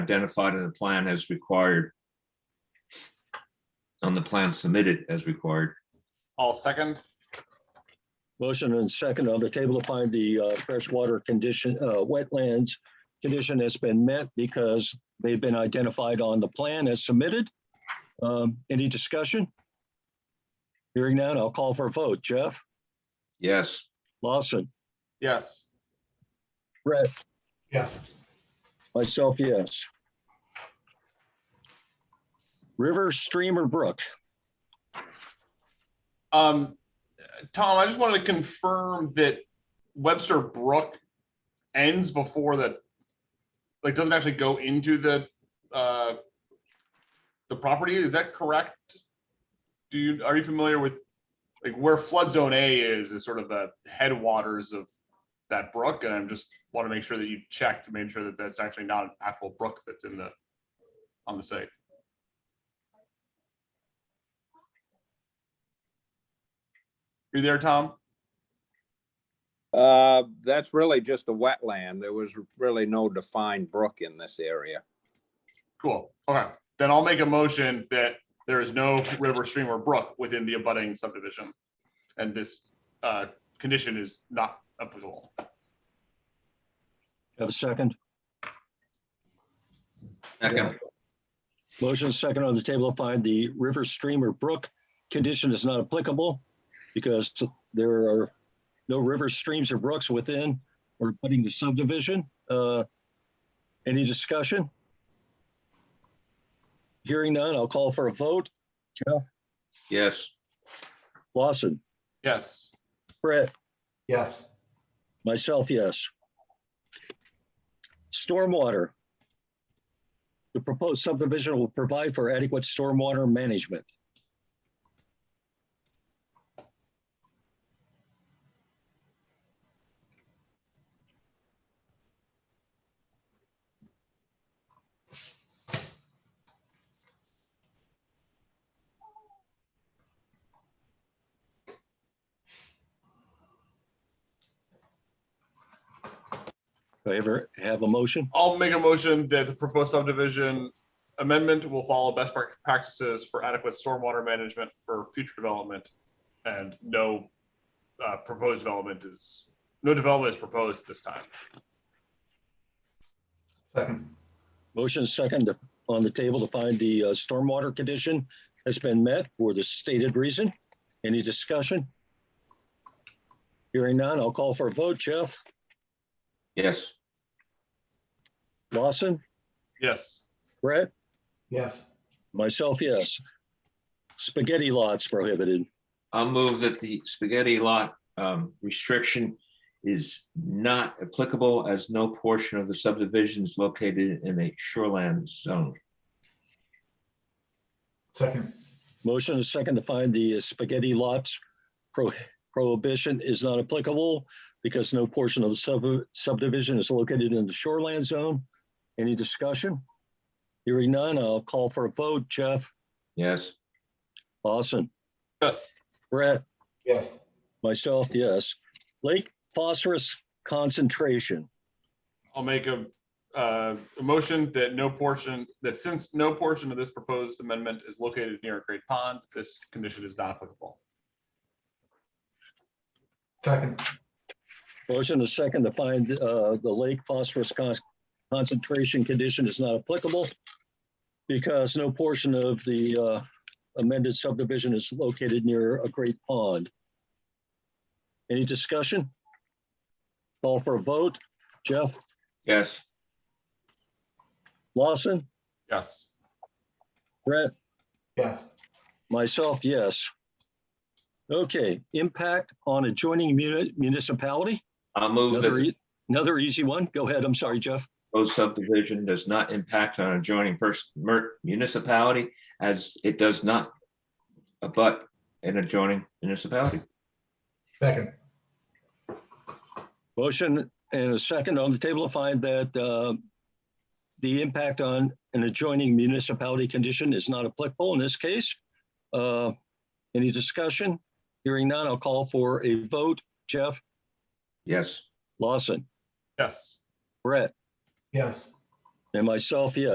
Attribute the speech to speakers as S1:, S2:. S1: identified in the plan as required. On the plan submitted as required.
S2: I'll second.
S3: Motion and second on the table to find the uh, freshwater condition, uh, wetlands condition has been met because they've been identified on the plan as submitted. Um, Any discussion? Hearing none, I'll call for a vote. Jeff,
S1: Yes,
S3: Lawson,
S2: Yes.
S4: Yes.
S3: myself, yes. River, stream, or brook?
S2: Um, Tom, I just wanted to confirm that Webster Brook ends before the, like, doesn't actually go into the, uh, the property. Is that correct? Do you, are you familiar with, like, where flood zone A is, is sort of the headwaters of that brook? And I'm just want to make sure that you check to make sure that that's actually not an actual brook that's in the, on the site. You there, Tom?
S5: Uh, that's really just a wetland. There was really no defined brook in this area.
S2: Cool. Okay, then I'll make a motion that there is no river, stream, or brook within the abutting subdivision. And this uh, condition is not applicable.
S3: Have a second?
S1: second,
S3: Motion second on the table to find the river, stream, or brook condition is not applicable because there are no rivers, streams, or brooks within or putting the subdivision. Uh, Any discussion? Hearing none, I'll call for a vote.
S1: yes,
S3: Lawson,
S2: Yes,
S3: Brett,
S4: Yes.
S3: myself, yes. Stormwater. The proposed subdivision will provide for adequate stormwater management. Do I ever have a motion?
S2: I'll make a motion that the proposed subdivision amendment will follow best prac- practices for adequate stormwater management for future development. And no uh, proposed development is, no development is proposed this time.
S4: Second.
S3: Motion second to- on the table to find the uh, stormwater condition has been met for the stated reason. Any discussion? Hearing none, I'll call for a vote. Jeff,
S1: yes,
S3: Lawson,
S2: Yes,
S3: Brett,
S4: Yes.
S3: myself, yes. Spaghetti lots prohibited.
S1: I'll move that the spaghetti lot um, restriction. Is not applicable as no portion of the subdivision is located in a shoreland zone.
S4: Second.
S3: Motion is second to find the spaghetti lots pro- prohibition is not applicable because no portion of the sub- subdivision is located in the shoreland zone. Any discussion? Hearing none, I'll call for a vote. Jeff,
S1: Yes,
S3: Lawson,
S2: yes,
S3: Brett,
S4: Yes.
S3: myself, yes. Lake phosphorus concentration.
S2: I'll make a, uh, a motion that no portion, that since no portion of this proposed amendment is located near a great pond, this condition is not applicable.
S4: Second.
S3: Motion is second to find uh, the lake phosphorus con- concentration condition is not applicable because no portion of the uh, amended subdivision is located near a great pond. Any discussion? Call for a vote. Jeff
S1: yes,
S3: Lawson,
S2: Yes,
S3: Brett,
S4: Yes.
S3: Myself, yes. Okay, impact on adjoining muni- municipality.
S1: I'll move that
S3: Another
S1: the
S3: e- another easy one. Go ahead. I'm sorry, Jeff.
S1: proposed subdivision does not impact on adjoining pers- mer- municipality as it does not abut an adjoining municipality.
S4: Second.
S3: Motion and a second on the table to find that uh, the impact on an adjoining municipality condition is not applicable in this case. Uh, Any discussion? Hearing none, I'll call for a vote. Jeff
S1: Yes.
S3: Lawson,
S2: yes.
S3: Brett,
S4: Yes.
S3: and myself, yes.